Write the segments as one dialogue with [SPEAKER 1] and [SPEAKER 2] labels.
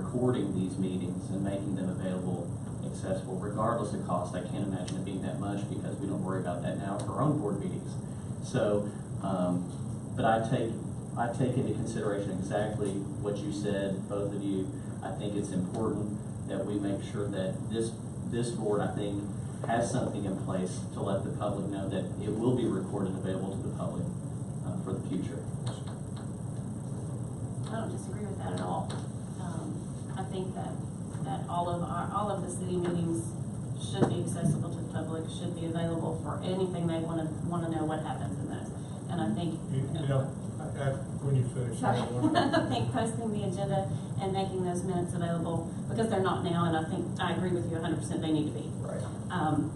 [SPEAKER 1] recording these meetings and making them available, accessible, regardless of cost. I can't imagine it being that much because we don't worry about that now for our own board meetings. So, um, but I take, I take into consideration exactly what you said, both of you. I think it's important that we make sure that this, this board, I think, has something in place to let the public know that it will be recorded and available to the public uh, for the future.
[SPEAKER 2] I don't disagree with that at all. Um, I think that, that all of our, all of the city meetings should be accessible to the public, should be available for anything they wanna, wanna know what happens in those. And I think.
[SPEAKER 3] You, you know, I, I, when you finish, I
[SPEAKER 2] Sorry.
[SPEAKER 3] have one more.
[SPEAKER 2] I think posting the agenda and making those minutes available, because they're not now, and I think, I agree with you hundred percent, they need to be.
[SPEAKER 4] Right.
[SPEAKER 2] Um,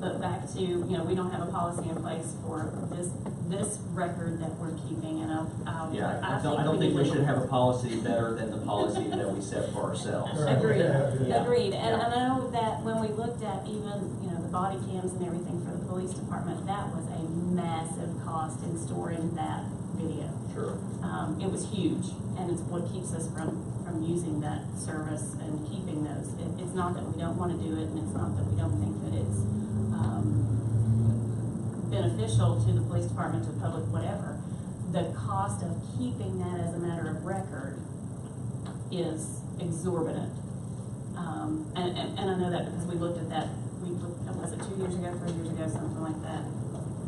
[SPEAKER 2] But back to, you know, we don't have a policy in place for this, this record that we're keeping, and I, I.
[SPEAKER 1] Yeah, I don't, I don't think we should have a policy better than the policy that we set for ourselves.
[SPEAKER 3] Right.
[SPEAKER 2] Agreed,
[SPEAKER 3] Yeah.
[SPEAKER 2] agreed, and I know that when we looked at even, you know, the body cams and everything for the police department, that was a massive cost in storing that video.
[SPEAKER 1] Sure.
[SPEAKER 2] Um, it was huge, and it's what keeps us from, from using that service and keeping those. It, it's not that we don't wanna do it, and it's not that we don't think that it's, um, beneficial to the police department, to the public, whatever. The cost of keeping that as a matter of record is exorbitant. Um, and, and, and I know that because we looked at that, we looked, was it two years ago, three years ago, something like that?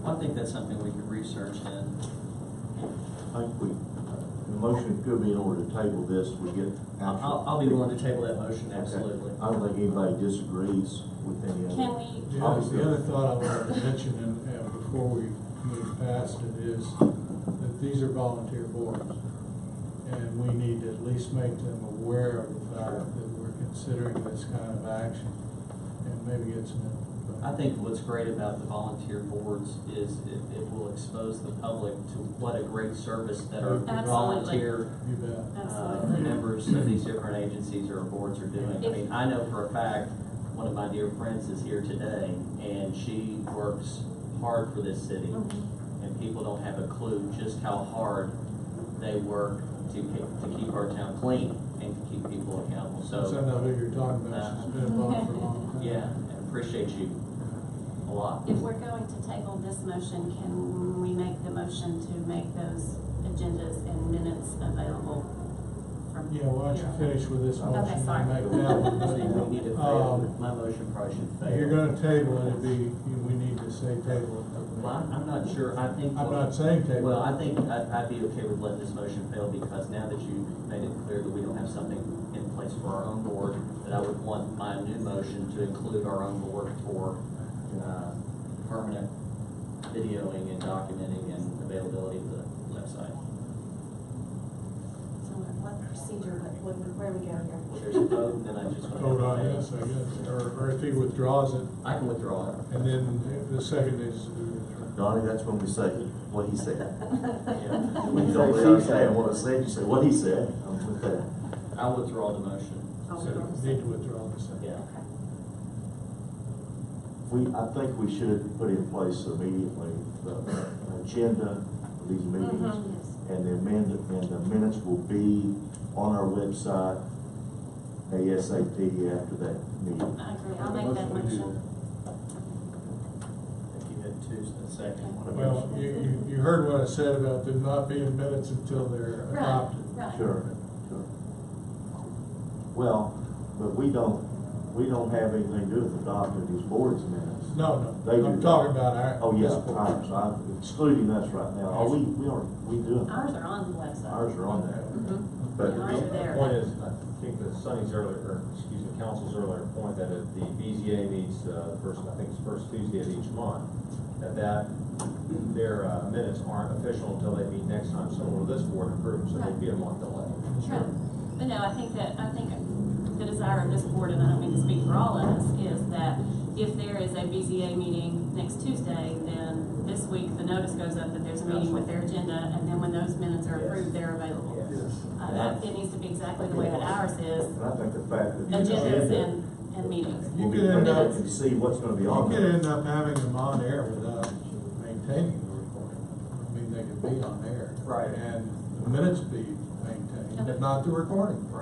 [SPEAKER 1] I think that's something we could research and
[SPEAKER 5] I think we, the motion could be in order to table this, we get. actual-
[SPEAKER 1] I'll, I'll be willing to table that motion,
[SPEAKER 5] Okay.
[SPEAKER 1] absolutely.
[SPEAKER 5] I don't think anybody disagrees with any of it.
[SPEAKER 2] Can we
[SPEAKER 3] The other, the other thought I wanted to mention, and, and before we move past it, is that these are volunteer boards. And we need to at least make them aware of the fact that we're considering this kind of action, and maybe get some input.
[SPEAKER 1] I think what's great about the volunteer boards is it, it will expose the public to what a great service that our
[SPEAKER 3] Absolutely.
[SPEAKER 1] volunteer
[SPEAKER 3] You bet.
[SPEAKER 1] uh,
[SPEAKER 2] Absolutely.
[SPEAKER 1] members of these different agencies or boards are doing. I mean, I know for a fact, one of my dear friends is here today, and she works hard for this city. And people don't have a clue just how hard they work to, ke- to keep our town clean and to keep people accountable.
[SPEAKER 3] Since I
[SPEAKER 1] So,
[SPEAKER 3] know who you're talking about, she's been involved for a long time.
[SPEAKER 1] yeah, I appreciate you a lot.
[SPEAKER 2] If we're going to table this motion, can we make the motion to make those agendas and minutes available from?
[SPEAKER 3] Yeah, why don't
[SPEAKER 2] here on?
[SPEAKER 3] you finish with this
[SPEAKER 2] Okay,
[SPEAKER 3] motion
[SPEAKER 2] sorry.
[SPEAKER 3] and make that one.
[SPEAKER 1] I think we need to fail. My motion probably should fail.
[SPEAKER 3] Um, You're gonna table it, it'd be, you- we need to say table it.
[SPEAKER 1] Well, I'm I'm not sure, I think.
[SPEAKER 3] I'm not saying table.
[SPEAKER 1] Well, I think I'd, I'd be okay with letting this motion fail because now that you made it clear that we don't have something in place for our own board, that I would want my new motion to include our own board for, uh, permanent videoing and documenting and availability of the website.
[SPEAKER 2] So what what procedure, what, what- where we go here?
[SPEAKER 1] There's a vote, then I just want to.
[SPEAKER 3] Vote on yes, I guess, or, or if he withdraws it,
[SPEAKER 1] I can withdraw it.
[SPEAKER 3] and then the second is. uh,
[SPEAKER 5] Donnie, that's when we say what he said.
[SPEAKER 1] Yeah.
[SPEAKER 5] When you don't really understand what I said, you say what he said, I'm with that.
[SPEAKER 1] I'll withdraw the motion.
[SPEAKER 2] Oh,
[SPEAKER 3] so
[SPEAKER 2] okay.
[SPEAKER 3] Need to withdraw the second.
[SPEAKER 1] Yeah.
[SPEAKER 5] We, I think we should put in place immediately the agenda of these meetings.
[SPEAKER 2] Mhm, yes.
[SPEAKER 5] And the amend, and the minutes will be on our website ASAP after that meeting.
[SPEAKER 2] I agree, I'll make that motion.
[SPEAKER 1] If you had two, so the second one.
[SPEAKER 3] Well, you, you, you heard what I said about them not being minutes until they're
[SPEAKER 2] Right,
[SPEAKER 3] adopted.
[SPEAKER 2] right.
[SPEAKER 5] Sure, sure. Well, but we don't, we don't have anything to do with adopting these board's minutes.
[SPEAKER 3] No,
[SPEAKER 5] They do
[SPEAKER 3] no, I'm
[SPEAKER 5] that.
[SPEAKER 3] talking about our.
[SPEAKER 5] Oh, yeah,
[SPEAKER 3] this board.
[SPEAKER 5] ours, I'm excluding us right now, are we, we are, we doing,
[SPEAKER 2] Ours are on the website.
[SPEAKER 5] ours are on there.
[SPEAKER 2] Mhm.
[SPEAKER 5] But-
[SPEAKER 2] Yeah, Ours are
[SPEAKER 6] The
[SPEAKER 2] there.
[SPEAKER 6] point is, I think that Sonny's earlier, or excuse me, council's earlier point that if the BZA meets, uh, the first, I think it's first Tuesday of each month, that that, their uh, minutes aren't official until they meet next time someone with this board approves, so they'd be a month delay.
[SPEAKER 2] Sure. But no, I think that, I think the desire of this board, and I don't mean to speak for all of us, is that if there is a BZA meeting next Tuesday, then this week, the notice goes up that there's a meeting with their agenda, and then when those minutes are approved, they're available. Uh, that, it needs to be exactly the way that ours is,
[SPEAKER 5] And I think the fact that. the
[SPEAKER 2] agendas
[SPEAKER 5] agenda
[SPEAKER 2] and, and meetings.
[SPEAKER 3] You
[SPEAKER 5] will be
[SPEAKER 3] could end
[SPEAKER 5] printed
[SPEAKER 3] up-
[SPEAKER 5] And see what's gonna be
[SPEAKER 3] You
[SPEAKER 5] on
[SPEAKER 3] could
[SPEAKER 5] there.
[SPEAKER 3] end up having them on air without maintaining the recording. I mean, they could be on air.
[SPEAKER 1] Right.
[SPEAKER 3] And the minutes be maintained,
[SPEAKER 2] Okay.
[SPEAKER 3] but not the recording.